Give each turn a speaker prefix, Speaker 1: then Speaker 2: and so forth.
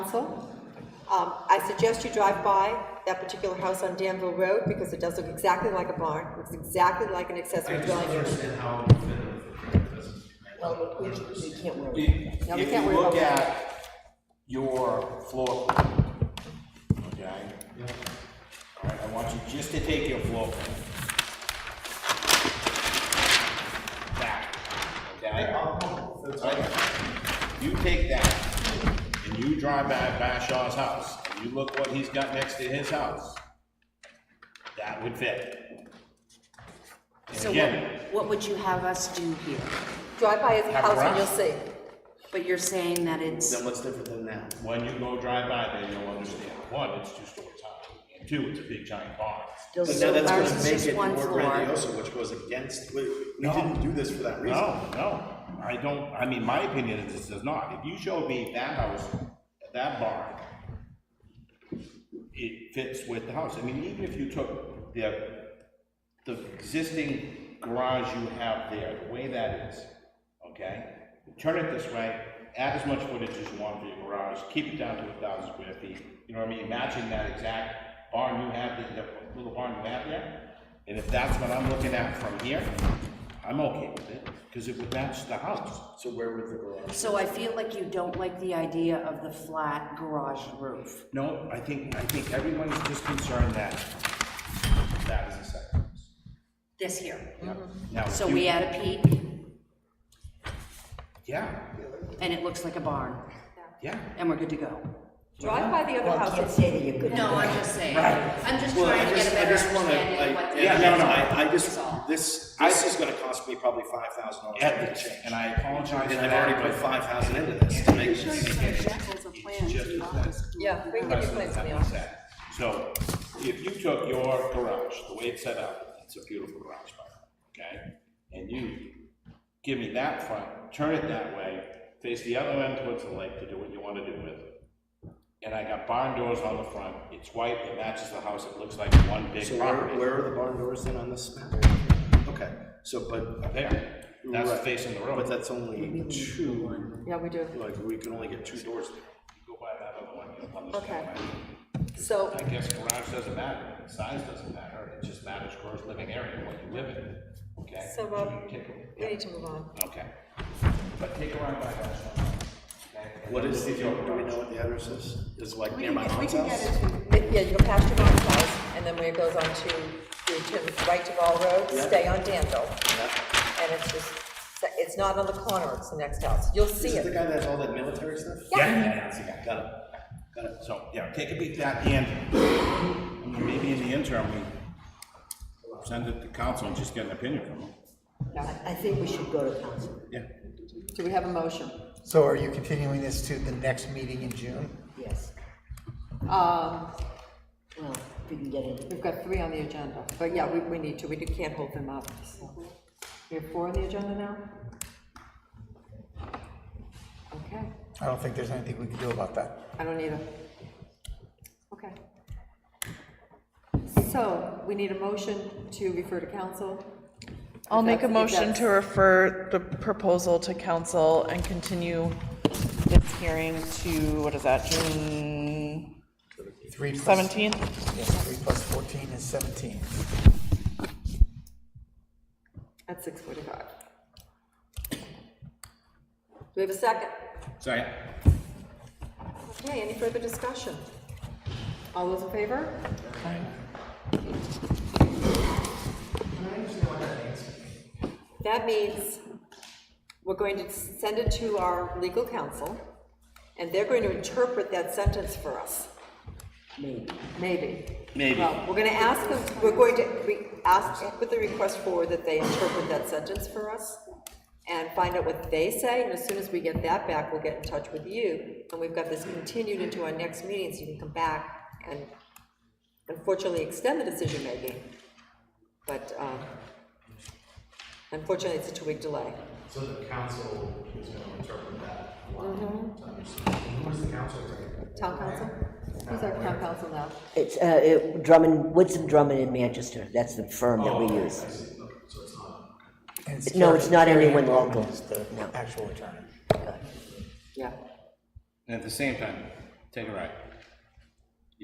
Speaker 1: Council. Um, I suggest you drive by that particular house on Danville Road because it does look exactly like a barn. It looks exactly like an
Speaker 2: I
Speaker 1: accessory
Speaker 2: just don't
Speaker 1: dwelling.
Speaker 2: understand how it would fit in the footprint, doesn't.
Speaker 1: Well, we, we can't worry about
Speaker 3: If
Speaker 1: that. No, we
Speaker 3: if
Speaker 1: can't
Speaker 3: you
Speaker 1: worry about
Speaker 3: look
Speaker 1: that.
Speaker 3: at your floor, plan, okay? All right, I want you just to take your floor plan. Back, okay?
Speaker 2: I'll- that's
Speaker 3: Right?
Speaker 2: fine.
Speaker 3: You take that, and you drive by Bashaw's house, and you look what he's got next to his house. That would fit. And
Speaker 4: So
Speaker 3: again,
Speaker 4: what, what would you have us do here?
Speaker 1: Drive by his
Speaker 3: Have
Speaker 1: house and
Speaker 3: grass.
Speaker 1: you'll see.
Speaker 4: But you're saying that it's,
Speaker 5: Then what's different than that?
Speaker 3: when you go drive by there, you'll understand, one, it's two stories high, and two, it's a big giant barn.
Speaker 4: still
Speaker 5: But now
Speaker 4: so
Speaker 5: that's
Speaker 4: ours
Speaker 5: gonna
Speaker 4: is
Speaker 5: make
Speaker 4: just
Speaker 5: it
Speaker 4: one
Speaker 5: more
Speaker 4: floor.
Speaker 5: grandiose, which goes against, we, we
Speaker 3: No.
Speaker 5: didn't do this for that reason.
Speaker 3: No, no, I don't, I mean, my opinion is this does not, if you show me that house, that barn, it fits with the house, I mean, even if you took the, the existing garage you have there, the way that is, okay? Turn it this way, add as much footage as you want for your garage, keep it down to a thousand square feet, you know what I mean, matching that exact barn you have, the, the little barn you have there, and if that's what I'm looking at from here, I'm okay with it, because it would match the house.
Speaker 5: So where would the garage?
Speaker 4: So I feel like you don't like the idea of the flat garage roof.
Speaker 3: No, I think, I think everyone is just concerned that that is a setback.
Speaker 4: This here.
Speaker 3: Now,
Speaker 4: So
Speaker 3: you-
Speaker 4: we add a peak
Speaker 3: Yeah,
Speaker 4: and it looks like a barn
Speaker 3: yeah.
Speaker 4: and we're good to go.
Speaker 1: Drive by the other house. and-
Speaker 6: say that you're good.
Speaker 4: No, I'm just saying, I'm just trying to get a better understanding of what the.
Speaker 5: Yeah,
Speaker 3: no, no,
Speaker 5: I, I
Speaker 4: is
Speaker 5: just,
Speaker 4: all.
Speaker 5: this, this is gonna cost me probably five thousand dollars
Speaker 3: At
Speaker 5: to
Speaker 3: the
Speaker 5: change.
Speaker 3: change, and I apologize for
Speaker 5: And
Speaker 3: that.
Speaker 5: I've already put
Speaker 3: but
Speaker 5: five thousand into this to make
Speaker 7: Show you
Speaker 5: this.
Speaker 7: some examples of plans.
Speaker 3: just
Speaker 7: and
Speaker 3: as
Speaker 7: not just-
Speaker 1: Yeah, we can
Speaker 3: the
Speaker 1: give you
Speaker 3: rest of
Speaker 1: plans
Speaker 3: the
Speaker 1: in the
Speaker 3: setback's
Speaker 1: office.
Speaker 3: set. So if you took your garage, the way it's set up, it's a beautiful garage, by the way, okay? And you give me that front, turn it that way, face the other end towards the lake to do what you wanna do with. it. And I got barn doors on the front, it's white, it matches the house, it looks like one big
Speaker 5: So where,
Speaker 3: property.
Speaker 5: where are the barn doors then on this map? Okay, so, but,
Speaker 3: There, that's
Speaker 5: Right.
Speaker 3: facing the road.
Speaker 5: but that's only two,
Speaker 1: Yeah, we do.
Speaker 5: like, we can only get two doors there.
Speaker 3: Go buy that other one, you'll understand.
Speaker 1: Okay.
Speaker 3: why.
Speaker 1: So,
Speaker 3: I guess garage doesn't matter, size doesn't matter, it just matters gross living area, what you live in, okay?
Speaker 1: so, um,
Speaker 3: Take
Speaker 1: we
Speaker 3: a-
Speaker 1: need to move on.
Speaker 3: Okay. But take around by that one.
Speaker 5: What is, the- do we know what the address is? Is it like
Speaker 7: We
Speaker 5: near
Speaker 7: can
Speaker 5: my
Speaker 7: get, we
Speaker 5: mom's
Speaker 7: can get
Speaker 5: house?
Speaker 7: into,
Speaker 1: Yeah, you go past your mom's house, and then where it goes on to, you turn right to Wall Road, stay on Danville,
Speaker 5: Yeah.
Speaker 1: and it's just, it's not on the corner, it's the next house. You'll see
Speaker 5: Is it the
Speaker 1: it.
Speaker 5: guy that has all that military stuff?
Speaker 3: Yeah, yeah, yeah, yeah.
Speaker 5: Got it, got it.
Speaker 3: So, yeah, take a peek at that, and and then maybe in the interim, we send it to council and just get an opinion from them.
Speaker 6: I think we should go to council.
Speaker 3: Yeah.
Speaker 1: Do we have a motion?
Speaker 8: So are you continuing this to the next meeting in June?
Speaker 6: Yes.
Speaker 1: Um,
Speaker 6: Well, if we can get it.
Speaker 1: we've got three on the agenda, but yeah, we, we need to, we can't hold them up, so. We have four on the agenda now? Okay,
Speaker 8: I don't think there's anything we can do about that.
Speaker 1: I don't either. Okay. So, we need a motion to refer to council.
Speaker 9: I'll
Speaker 1: If
Speaker 9: make a
Speaker 1: that's- if
Speaker 9: motion to
Speaker 1: that's-
Speaker 9: refer the proposal to council and continue this hearing to, what is that, June
Speaker 8: Three plus-
Speaker 9: seventeenth?
Speaker 8: Yes, three plus fourteen is seventeen.
Speaker 1: At six forty-five. Do we have a second?
Speaker 3: Sorry.
Speaker 1: Okay, any further discussion? All those in favor? That means we're going to send it to our legal counsel, and they're going to interpret that sentence for us. Maybe. Maybe. Well, we're gonna ask them, we're going to, we ask, put the request forward that they interpret that sentence for us and find out what they say, and as soon as we get that back, we'll get in touch with you. And we've got this continued into our next meeting, so you can come back and unfortunately extend the decision-making. But, um, unfortunately, it's a two-week delay.
Speaker 2: So the council is gonna interpret that. Who's the council?
Speaker 1: Mm-hmm. Town council? Who's our town council now?
Speaker 6: It's, uh, it- Drummond, Woodson Drummond in Manchester, that's the firm that we use.
Speaker 8: And
Speaker 6: No, it's not
Speaker 8: Carrie-
Speaker 6: anyone
Speaker 8: Carrie Hamilton
Speaker 6: local.
Speaker 8: is the
Speaker 6: No.
Speaker 8: Actual attorney.
Speaker 1: Yeah.
Speaker 3: And at the same time, Take a right.